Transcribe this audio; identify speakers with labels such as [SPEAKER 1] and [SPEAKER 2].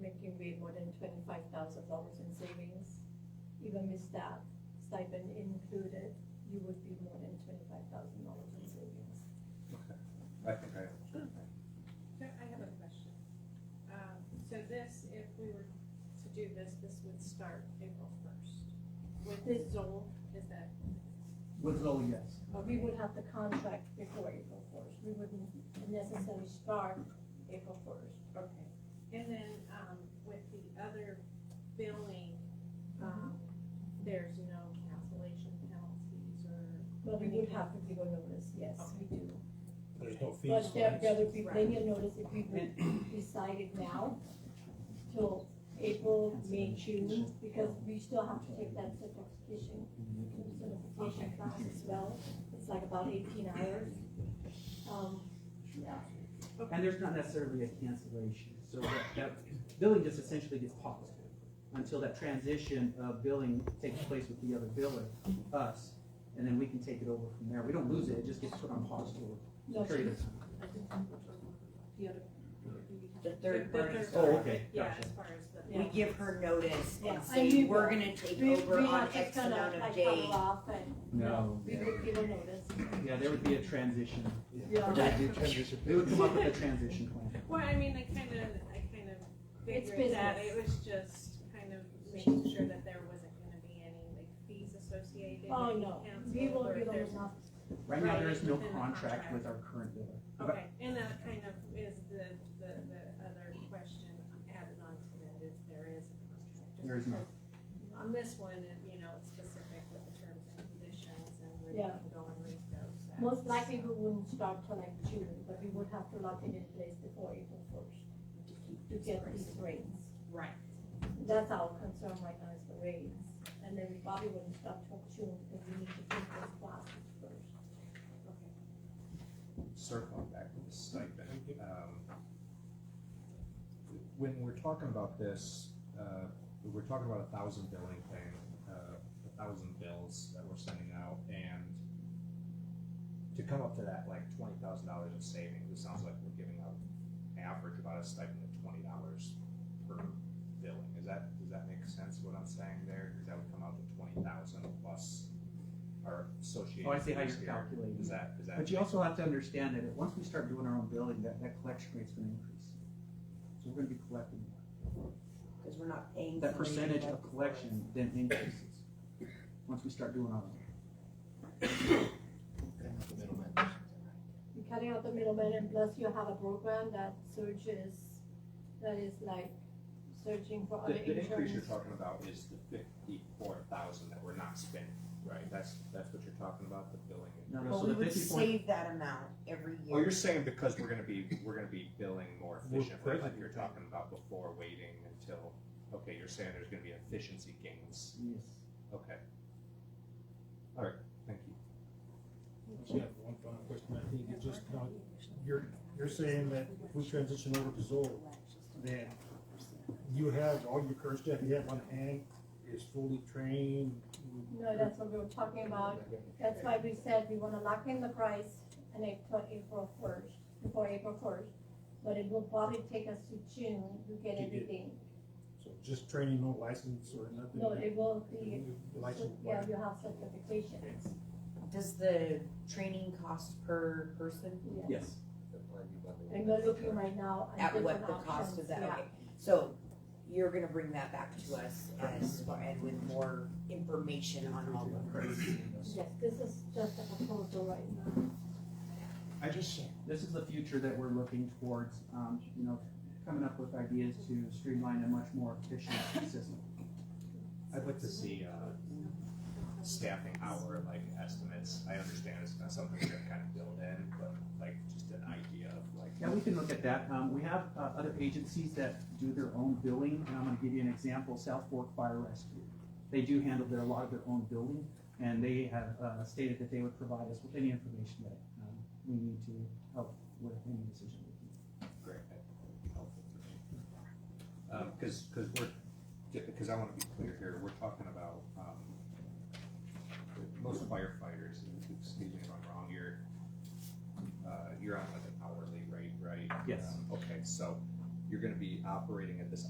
[SPEAKER 1] giving away more than twenty-five thousand dollars in savings, even with that stipend included, you would be more than twenty-five thousand dollars in savings.
[SPEAKER 2] I think I understand.
[SPEAKER 3] So I have a question. Um, so this, if we were to do this, this would start April first. With
[SPEAKER 1] This-
[SPEAKER 3] Zoll, is that?
[SPEAKER 4] With Zoe, yes.
[SPEAKER 1] We would have the contract before April first, we wouldn't necessarily start April first.
[SPEAKER 3] Okay. And then, um, with the other billing,
[SPEAKER 1] Mm-hmm.
[SPEAKER 3] um, there's no cancellation penalties or?
[SPEAKER 1] But we would have to give a notice, yes, we do.
[SPEAKER 5] There's no fees.
[SPEAKER 1] But there,
[SPEAKER 5] for
[SPEAKER 1] there
[SPEAKER 5] us.
[SPEAKER 1] would be plenty of notice if we would decide it now till April, May, June, because we still have to take that certification, certification class as well. It's like about eighteen hours. Um, yeah,
[SPEAKER 4] And there's not necessarily a cancellation, so that, that billing just essentially gets paused until that transition of billing takes place with the other biller, us, and then we can take it over from there. We don't lose it, it just gets put on pause for
[SPEAKER 1] no,
[SPEAKER 4] a period of time.
[SPEAKER 3] The other.
[SPEAKER 6] The third
[SPEAKER 3] The- the
[SPEAKER 6] party.
[SPEAKER 3] third
[SPEAKER 4] Oh,
[SPEAKER 3] party,
[SPEAKER 4] okay,
[SPEAKER 3] Yeah,
[SPEAKER 4] gotcha.
[SPEAKER 3] as far as the.
[SPEAKER 6] We give her notice
[SPEAKER 1] Yeah,
[SPEAKER 6] and
[SPEAKER 1] I knew
[SPEAKER 6] say, we're
[SPEAKER 1] that.
[SPEAKER 6] gonna take
[SPEAKER 1] we,
[SPEAKER 6] over
[SPEAKER 1] we
[SPEAKER 6] on
[SPEAKER 1] have to
[SPEAKER 6] X
[SPEAKER 1] kind
[SPEAKER 6] amount
[SPEAKER 1] of
[SPEAKER 6] of
[SPEAKER 1] like cover
[SPEAKER 6] days.
[SPEAKER 1] off and, you know,
[SPEAKER 4] No,
[SPEAKER 1] we would give a notice.
[SPEAKER 4] Yeah, there would be a transition.
[SPEAKER 1] Yeah.
[SPEAKER 4] They would come up with a transition plan.
[SPEAKER 3] Well, I mean, I kind of, I kind of
[SPEAKER 1] It's
[SPEAKER 3] figured that,
[SPEAKER 1] business.
[SPEAKER 3] it was just kind of making sure that there wasn't gonna be any like fees associated.
[SPEAKER 1] Oh,
[SPEAKER 3] with
[SPEAKER 1] no,
[SPEAKER 3] council
[SPEAKER 1] we will
[SPEAKER 3] or
[SPEAKER 1] give
[SPEAKER 3] if
[SPEAKER 1] them
[SPEAKER 3] there's-
[SPEAKER 1] enough.
[SPEAKER 4] Right now, there is no
[SPEAKER 3] Right, within the contract.
[SPEAKER 4] contract with our current biller.
[SPEAKER 3] Okay, and that kind of is the, the, the other question added on to that, if there is a contract.
[SPEAKER 4] There is no.
[SPEAKER 3] On this one, it- you know, it's specific with the terms and conditions and where you
[SPEAKER 1] Yeah.
[SPEAKER 3] can go and read those. so-
[SPEAKER 1] Most likely we wouldn't start till like June, but we would have to lock it in place before April first to get these rates.
[SPEAKER 3] Right.
[SPEAKER 1] That's our concern right now is the rates. And then we probably wouldn't start till June because we need to take those classes first.
[SPEAKER 2] Circling back to the stipend. um, When we're talking about this, uh, we're talking about a thousand billing thing, uh, a thousand bills that we're sending out and to come up to that like twenty thousand dollars in savings, it sounds like we're giving out average about a stipend of twenty dollars per billing. Is that, does that make sense what I'm saying there? Cause that would come out to twenty thousand plus our associated.
[SPEAKER 4] Oh, I see how you're
[SPEAKER 2] fees here.
[SPEAKER 4] calculating.
[SPEAKER 2] Is that, is that?
[SPEAKER 4] But you also have to understand that once we start doing our own billing, that, that collection rate's gonna increase. So we're gonna be collecting more.
[SPEAKER 6] Cause we're not paying.
[SPEAKER 4] that
[SPEAKER 6] somebody to
[SPEAKER 4] percentage of
[SPEAKER 6] collect for us.
[SPEAKER 4] collection then increases, once we start doing our own.
[SPEAKER 1] You're cutting out the middleman and plus you have a program that searches, that is like searching for other
[SPEAKER 2] The, the increase you're
[SPEAKER 1] insurance.
[SPEAKER 2] talking about is the fifty-four thousand that we're not spending, right? That's, that's what you're talking about, the billing
[SPEAKER 4] No,
[SPEAKER 2] increase?
[SPEAKER 4] no,
[SPEAKER 6] But
[SPEAKER 4] so
[SPEAKER 6] we
[SPEAKER 4] the
[SPEAKER 6] would
[SPEAKER 4] fifty point,
[SPEAKER 6] save that amount every
[SPEAKER 2] Oh, you're
[SPEAKER 6] year.
[SPEAKER 2] saying because we're gonna be, we're gonna be billing more
[SPEAKER 5] More
[SPEAKER 2] efficiently, like
[SPEAKER 5] efficient.
[SPEAKER 2] you're talking about before waiting until, okay, you're saying there's gonna be efficiency gains,
[SPEAKER 4] yes,
[SPEAKER 2] okay. Alright, thank you.
[SPEAKER 5] I have one final question, I think it's just, not- you're, you're saying that if we transition over to Zoll, then you have all your current staff you have on hand is fully trained?
[SPEAKER 1] No, that's what we were talking about. That's why we said we wanna lock in the price and April, April first, before April first. But it will probably take us to June to get
[SPEAKER 5] To get-
[SPEAKER 1] everything.
[SPEAKER 5] So just training, no license or nothing?
[SPEAKER 1] No, it will be,
[SPEAKER 5] License.
[SPEAKER 1] yeah, you have certifications.
[SPEAKER 6] Does the training cost per person?
[SPEAKER 1] Yeah.
[SPEAKER 4] yes.
[SPEAKER 1] And we're looking right now at
[SPEAKER 6] At what
[SPEAKER 1] different
[SPEAKER 6] the cost
[SPEAKER 1] options,
[SPEAKER 6] of that,
[SPEAKER 1] yeah.
[SPEAKER 6] okay. So you're gonna bring that back to us as far, and with more information on all of this.
[SPEAKER 1] Yes, this is just a proposal right now.
[SPEAKER 2] I just,
[SPEAKER 4] This is the future that we're looking towards, um, you know, coming up with ideas to streamline a much more efficient system.
[SPEAKER 2] I'd like to see, uh, staffing hour, like estimates, I understand it's not something you're gonna kinda build in, but like, just an idea of like,
[SPEAKER 4] Yeah, we can look at that, um, we have, uh, other agencies that do their own billing, and I'm gonna give you an example, South Fork Fire Rescue. They do handle their, a lot of their own billing, and they have, uh, stated that they would provide us with any information that, um, we need to help with any decision making.
[SPEAKER 2] Great, that would be helpful for me. Um, cause, cause we're, because I wanna be clear here, we're talking about, um, most firefighters, and excuse me if I'm wrong, you're, uh, you're on like an hourly rate, right?
[SPEAKER 4] Yes.
[SPEAKER 2] Um, Okay, so you're gonna be operating at this